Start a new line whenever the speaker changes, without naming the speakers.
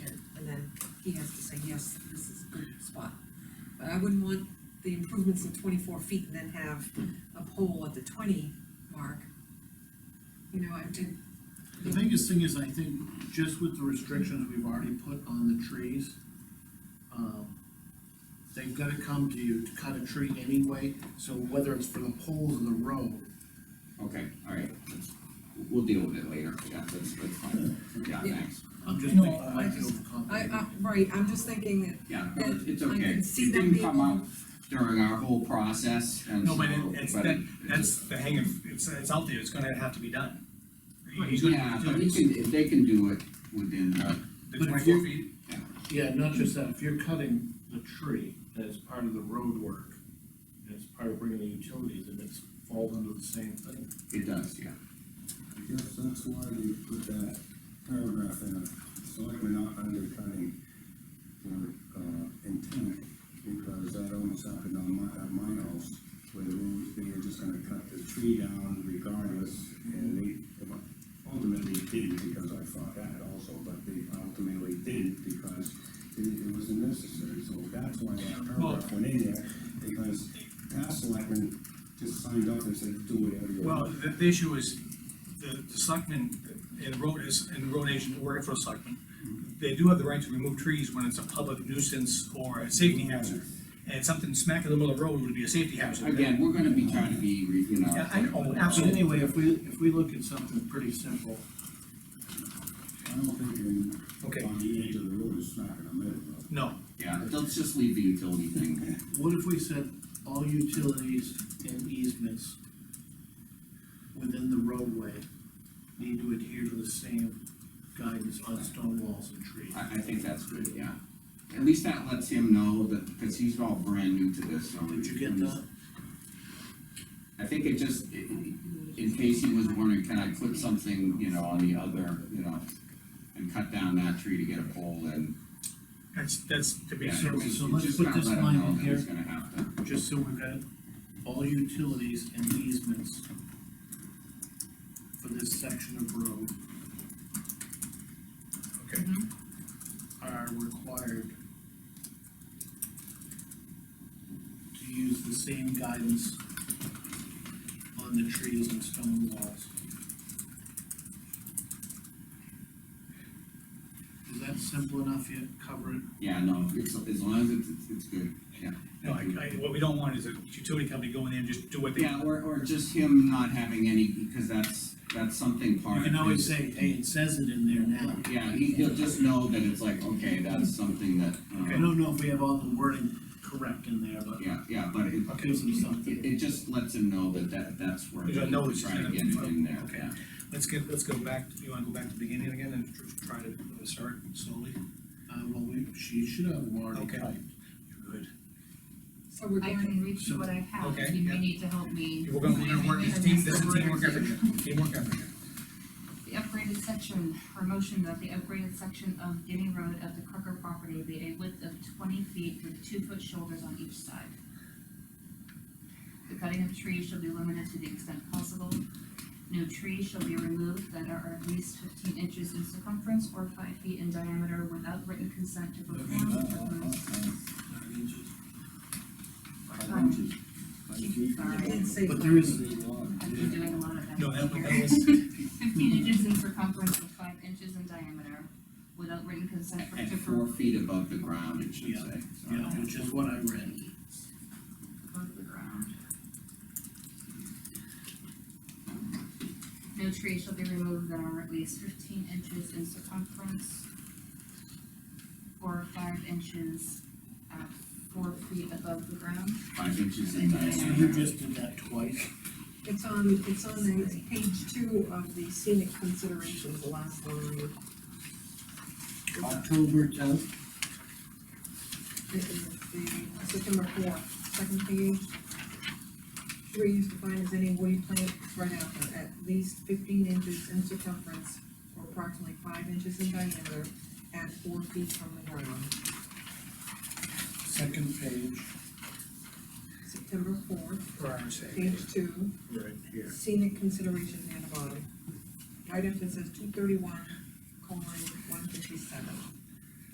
he has to say, yes, this is a good spot. But I wouldn't want the improvements at twenty-four feet and then have a pole at the twenty mark. You know, I did,
The biggest thing is, I think, just with the restrictions we've already put on the trees, um, they've gotta come to you to cut a tree anyway, so whether it's for the poles or the road,
Okay, all right, that's- we'll deal with it later, yeah, that's, that's fine, yeah,
Yeah.
thanks,
I'm just
No,
thinking, it
I
might be
just- I,
overcomplicated.
I, right, I'm just thinking that
yeah, no, it's- it's
I can
okay.
see
It
them
didn't come
being-
up during our whole process, and
No, but it-
so-
it's
but
that-
it- it
That's
just-
the hang of, it's, it's out there, it's gonna have to be done. He's gonna-
Yeah, but you can, if they can do it within, uh,
The
But if
twenty-four
you-
feet,
Yeah, not just that, if you're cutting the tree as part of the road work, and it's part of bringing the utilities, and it's falls under the same thing.
it does, yeah.
Yes, that's why you put that paragraph in, selectmen not undercutting their, uh, intent, because that almost happened on my, at my house, where the rules, they were just gonna cut the tree down regardless, and they ultimately didn't, because I fought that also, but they ultimately didn't, because it, it wasn't necessary, so that's why that paragraph went in there, because past selectmen just signed up and said, do whatever you
well,
want.
the, the issue is, the, the selectmen, and the road is, and the road agent working for a selectman, they do have the right to remove trees when it's a public nuisance or a safety
Mm-hmm.
hazard. And something smack in the middle of the road would be a safety hazard.
Again, we're gonna be trying to be, re- you know.
Yeah, I know,
So
absolutely.
anyway, if we, if we look at something pretty simple,
I don't think in
Okay,
On the edge of the road, it's not gonna matter, but
no,
Yeah, let's just leave the utility thing,
What if we said all utilities and easements within the roadway need to adhere to the same guidance on stone walls and trees?
I, I think that's good, yeah. At least that lets him know that, because he's all brand new to this, so.
Did you get that?
I think it just, i- in case he was wondering, can I put something, you know, on the other, you know, and cut down that tree to get a pole and.
that's, that's to be
yeah,
so-
it's-
so
it's
let's
just
put
kinda
this
let him
line
know
in
that he's
here.
gonna have to,
Just so we've got all utilities and easements for this section of road
okay.
are required to use the same guidance on the trees and stone walls. Is that simple enough yet, cover it?
yeah, no, it's, as long as it's, it's- it's good, yeah.
No, I, I, what we don't want is a utility company going in and just do what they.
Yeah, or, or just him not having any, because that's, that's something part
You
of
can always
his-
say, hey, it says it in there now.
Yeah, he, he'll just know that it's like, okay, that's something that,
I
um,
don't know if we have all the wording correct in there, but
yeah, yeah, but it,
it gives them
It,
something.
it just lets him know that that, that's where.
You don't know it's
he's Trying to
gonna-
get it in there,
okay.
yeah.
Let's get, let's go back, you wanna go back to the beginning again and tr- try to start slowly?
Uh, well, we, she should have already
Okay.
typed.
You're good.
so we're
I
going,
can reach you what I have,
Mm-hmm. Okay,
you
yeah.
may need to help me.
We're gonna, we're gonna work, this team, this is teamwork effort, here. teamwork effort. here.
The upgraded section, or motion that the upgraded section of Guinea Road at the Crocker property be a width of twenty feet with two-foot shoulders on each side. The cutting of trees shall be limited to the extent possible. No trees shall be removed that are at least fifteen inches in circumference or five feet in diameter without written consent to perform the proposed.
I did say.
But there is,
I've been doing a lot of that.
No, that was- that
here.
was-
Fifteen inches in circumference and five inches in diameter, without written consent for,
At
to
four
for.
feet above the ground, it should
Yeah,
say.
you know, which is what I read.
Above the ground. No trees shall be removed that are at least fifteen inches in circumference or five inches at four feet above the ground.
Five inches in
So
diameter.
you just did that twice.
It's on, it's on the, it's page two of the scenic considerations, the last one.
October tenth,
It is the September fourth, second page. Three is defined as any woody plant, it's right after, at least fifteen inches in circumference or approximately five inches in diameter at four feet from the ground.
second page.
September fourth,
For our sake.
page two.
Right here.
scenic considerations near the bottom. Right after it says two thirty-one, colon, one fifty-seven.